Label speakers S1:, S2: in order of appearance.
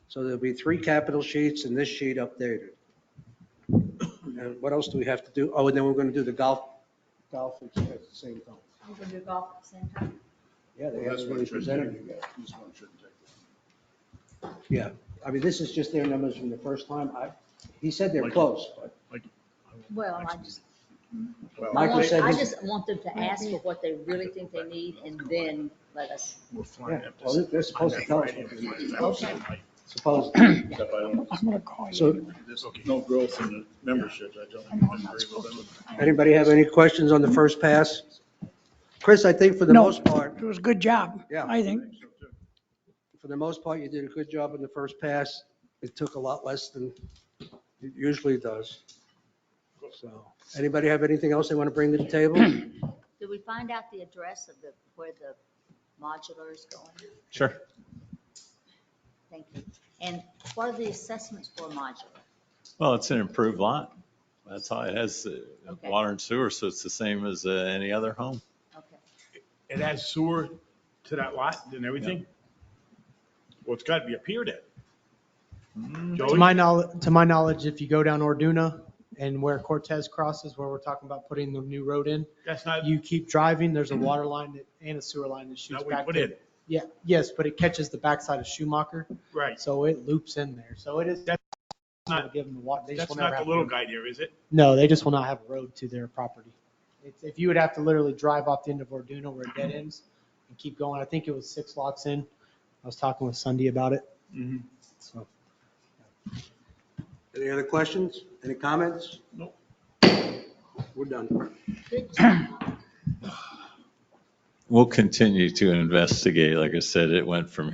S1: So there'll be three capital sheets and this sheet updated. And what else do we have to do? Oh, and then we're going to do the golf, golf expense at the same time.
S2: You can do golf at the same time.
S1: Yeah, they
S3: Well, That's
S1: haven't
S3: one
S1: really
S3: shouldn't
S1: presented it
S3: take,
S1: yet.
S3: this one shouldn't take.
S1: Yeah, I mean, this is just their numbers from the first time. I, he said they're
S4: Like-
S1: close, but
S2: Well, I just,
S3: Well,
S2: I
S1: Michael
S2: want-
S1: said
S2: I
S1: his-
S2: just want them to ask for what they really think they need and then let us.
S4: We're
S1: yeah,
S4: flying up to-
S1: well, they're- they're supposed to tell us, what they're- supposed,
S3: Except I don't,
S4: I'm gonna call you.
S1: so
S3: there's no growth in the memberships. I
S4: I know I'm
S3: don't
S4: not
S3: agree with
S4: supposed
S3: them.
S4: to.
S1: Anybody have any questions on the first pass? Chris, I think for the
S4: No.
S1: most part,
S4: It was a good job,
S1: Yeah.
S4: I think.
S1: for the most part, you did a good job in the first pass. It took a lot less than it usually does. So, anybody have anything else they want to bring to the table?
S2: Did we find out the address of the, where the modular is going?
S5: Sure.
S2: Thank you. And what are the assessments for modular?
S5: Well, it's an improved lot. That's how it has uh,
S2: Okay.
S5: water and sewer, so it's the same as uh, any other home.
S2: Okay.
S6: it has sewer to that lot and everything? Well, it's gotta be a pier then.
S7: To
S3: Mm-hmm.
S6: Joey,
S7: my knowledge, to my knowledge, if you go down Orduna and where Cortez crosses, where we're talking about putting the new road in,
S6: that's not,
S7: you keep driving, there's a water line that- and a sewer line that shoots
S6: not what you Mm-hmm.
S7: back.
S6: put
S7: to-
S6: in,
S7: Yeah, yes, but it catches the backside of Schumacher,
S6: right.
S7: so it loops in there. So it is.
S6: That's not-
S7: Give them the water. They just
S6: That's
S7: will never
S6: not the
S7: have-
S6: little guy there, is it?
S7: No, they just will not have a road to their property. It's, if you would have to literally drive off the end of Orduna where it dead ends and keep going, I think it was six lots in. I was talking with Sunday about it, so.
S1: Any other questions? Any comments?
S6: Nope.
S1: We're done.
S2: Good job.
S5: We'll continue to investigate. Like I said, it went from